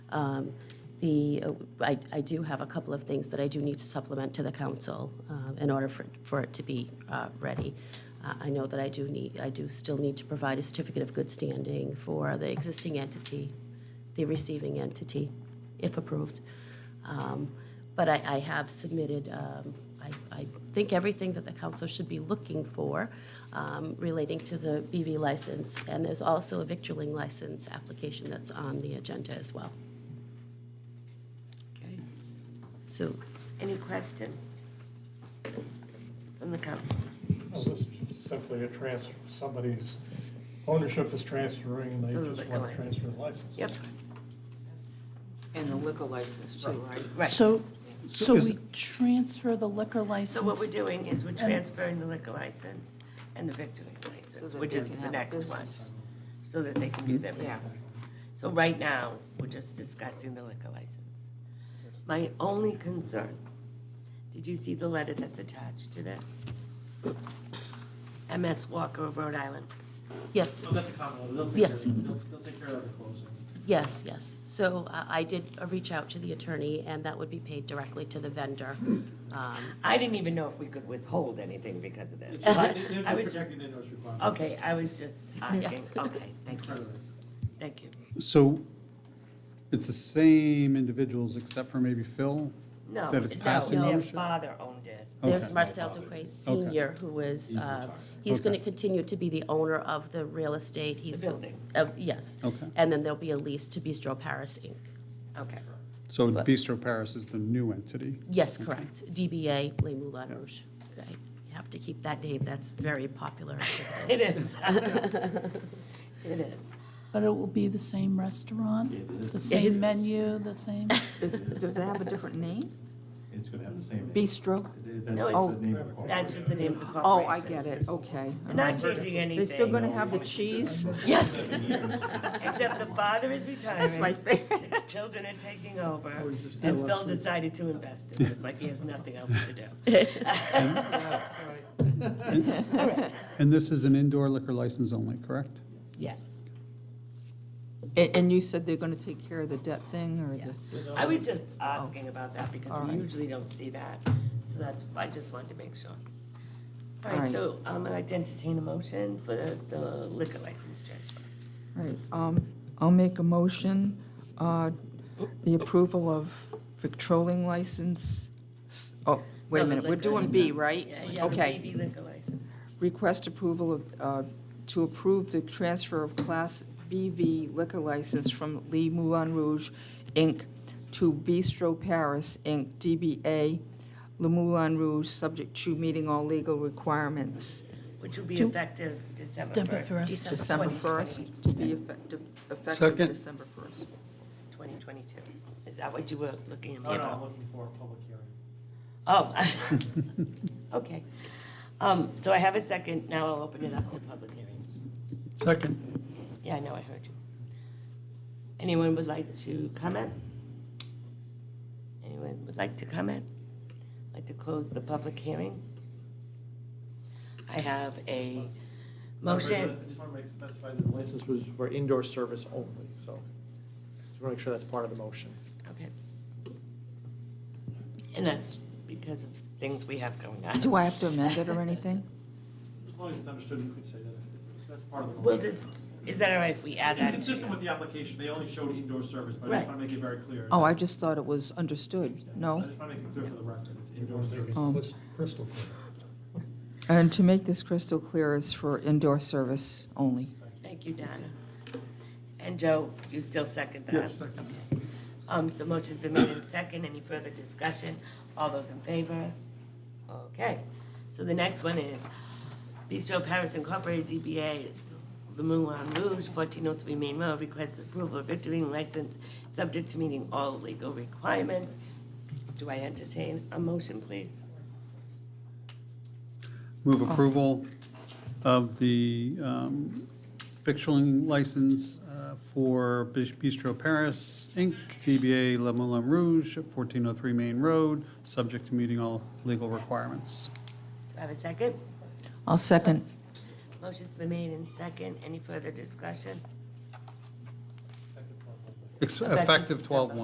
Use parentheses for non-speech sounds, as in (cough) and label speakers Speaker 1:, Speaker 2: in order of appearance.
Speaker 1: Um, The, I I do have a couple of things that I do need to supplement to the council um, in order for for it to be uh, ready. Uh, I know that I do need, I do still need to provide a certificate of good standing for the existing entity, the receiving entity, if approved. Um, But I, I have submitted, um, I, I think everything that the council should be looking for um, relating to the BV license. And there's also a victualling license application that's on the agenda as well.
Speaker 2: Okay.
Speaker 1: So,
Speaker 3: Any questions from the council?
Speaker 4: Well, this is just simply a transfer, somebody's ownership is transferring, and they
Speaker 3: So
Speaker 4: just
Speaker 3: the
Speaker 4: want to
Speaker 3: license.
Speaker 4: transfer the license.
Speaker 3: Yep,
Speaker 2: And the liquor license too, right?
Speaker 3: right.
Speaker 5: So, so
Speaker 6: is-
Speaker 5: we transfer the liquor license.
Speaker 3: So what we're doing is we're transferring the liquor license and the victory license,
Speaker 2: that
Speaker 3: which
Speaker 2: they
Speaker 3: is
Speaker 2: can
Speaker 3: the
Speaker 2: have a
Speaker 3: next one,
Speaker 2: business.
Speaker 3: so that they can do their
Speaker 2: Yeah.
Speaker 3: business. So right now, we're just discussing the liquor license. My only concern, did you see the letter that's attached to this? MS Walker of Rhode Island.
Speaker 1: yes.
Speaker 7: Oh, that's a common, they'll take care,
Speaker 1: Yes.
Speaker 7: they'll, they'll take care of the closing.
Speaker 1: Yes, yes. So I I did uh, reach out to the attorney, and that would be paid directly to the vendor. Um,
Speaker 3: I didn't even know if we could withhold anything because of this.
Speaker 7: They're they're
Speaker 3: Uh-huh. I was just-
Speaker 7: just protecting their notice requirement.
Speaker 3: Okay, I was just asking.
Speaker 1: Yes.
Speaker 3: Okay, thank
Speaker 7: Right
Speaker 3: you,
Speaker 7: away.
Speaker 3: thank you.
Speaker 6: So it's the same individuals except for maybe Phil?
Speaker 3: No,
Speaker 6: That it's passing
Speaker 3: no, their
Speaker 6: ownership?
Speaker 3: father owned it.
Speaker 1: There's
Speaker 6: Okay.
Speaker 1: Marcel Duque Senior, who is, uh, he's going to
Speaker 6: Okay.
Speaker 1: continue to be the owner of the real estate. He's
Speaker 3: building.
Speaker 1: of- Yes.
Speaker 6: Okay.
Speaker 1: And then there'll be a lease to Bistro Paris Inc.
Speaker 3: Okay,
Speaker 6: So Bistro Paris is the new entity?
Speaker 1: Yes, correct. DBA Les Moulin Rouge. Right. You have to keep that name. That's very
Speaker 6: (laughs)
Speaker 1: popular.
Speaker 3: (laughs) it is. (laughs) It is.
Speaker 5: But it will be the same restaurant, the
Speaker 1: It
Speaker 5: same
Speaker 1: is.
Speaker 5: menu, the same
Speaker 8: (laughs) Does it have a different name?
Speaker 9: It's gonna have the same name.
Speaker 8: Bistro?
Speaker 9: That's
Speaker 3: No,
Speaker 9: just the name of the
Speaker 3: That's just the name of the corporation.
Speaker 8: Oh, I get it, okay.
Speaker 3: We're not changing
Speaker 8: They're still
Speaker 3: anything,
Speaker 8: gonna have the cheese?
Speaker 1: Yes.
Speaker 3: (laughs) except the father is
Speaker 8: That's my (laughs)
Speaker 3: retiring,
Speaker 8: favorite.
Speaker 3: the children are taking over,
Speaker 7: was just there
Speaker 3: and
Speaker 7: last
Speaker 3: Phil
Speaker 7: week.
Speaker 3: decided to invest in this, like he has nothing else
Speaker 8: (laughs)
Speaker 3: to do.
Speaker 6: And this is an indoor liquor license only, correct?
Speaker 3: Yes.
Speaker 8: And, and you said they're gonna take care of the debt thing, or this is?
Speaker 3: I was just asking about that because we
Speaker 8: Alright.
Speaker 3: usually don't see that, so that's, I just wanted to make sure. All right,
Speaker 8: Alright.
Speaker 3: so um, I'd like to entertain a motion for the- the liquor license transfer.
Speaker 8: Right, um, I'll make a motion, uh, the approval of Victroling license. s- Oh, wait a
Speaker 3: No, the
Speaker 8: minute, we're
Speaker 3: liquor.
Speaker 8: doing B, right?
Speaker 3: Yeah, yeah, the
Speaker 8: Okay.
Speaker 3: BV liquor license.
Speaker 8: Request approval of, uh, to approve the transfer of Class BV liquor license from Lee Moulin Rouge, Inc. to Bistro Paris, Inc., DBA Le Moulin Rouge, subject to meeting all legal requirements.
Speaker 3: Which will be
Speaker 5: Do-
Speaker 3: effective December
Speaker 5: December
Speaker 3: 1st.
Speaker 5: 1st.
Speaker 8: December 1st, to be effective, effective
Speaker 6: Second.
Speaker 8: December 1st.
Speaker 3: 2022. Is that what you were looking at me
Speaker 7: No, no, I'm
Speaker 3: about?
Speaker 7: looking for a public hearing.
Speaker 3: Oh, (laughs) okay. Um, So I have a second, now I'll open it up to public hearing.
Speaker 6: Second.
Speaker 3: Yeah, I know, I heard you. Anyone would like to comment? Anyone would like to comment? Like to close the public hearing? I have a motion.
Speaker 7: I just want to make, specify that the license was for indoor service only, so just want to make sure that's part of the motion.
Speaker 3: Okay. And that's because of things we have going on.
Speaker 8: Do I have to amend it or anything?
Speaker 7: As long as it's understood, you could say that, if it's- that's part of the
Speaker 3: We'll
Speaker 7: motion.
Speaker 3: just, is that all right if we add
Speaker 7: It's
Speaker 3: that?
Speaker 7: consistent with the application, they only showed indoor service, but I
Speaker 3: Right.
Speaker 7: just want to make it very clear.
Speaker 8: Oh, I just thought it was understood,
Speaker 7: I
Speaker 8: no?
Speaker 7: just want to make it clear for the record, it's indoor service.
Speaker 8: Um,
Speaker 4: Crystal- Crystal clear.
Speaker 8: And to make this crystal clear, it's for indoor service only.
Speaker 3: Thank you, Donna. And Joe, you still second that?
Speaker 4: Yes, second.
Speaker 3: Okay. Um, so motion's been made in second. Any further discussion? All those in favor? Okay. So the next one is Bistro Paris Incorporated, DBA Le Moulin Rouge, 1403 Main Road, requests approval of victory license, subject to meeting all legal requirements. Do I entertain a motion, please?
Speaker 6: Move approval of the um, victualling license uh, for Bis- Bistro Paris, Inc., DBA Le Moulin Rouge, 1403 Main Road, subject to meeting all legal requirements.
Speaker 3: Do I have a second?
Speaker 8: I'll second.
Speaker 3: Motion's been made in second. Any further discussion?
Speaker 6: Ex-
Speaker 3: Effective
Speaker 6: Effective
Speaker 3: December.
Speaker 6: 12/1.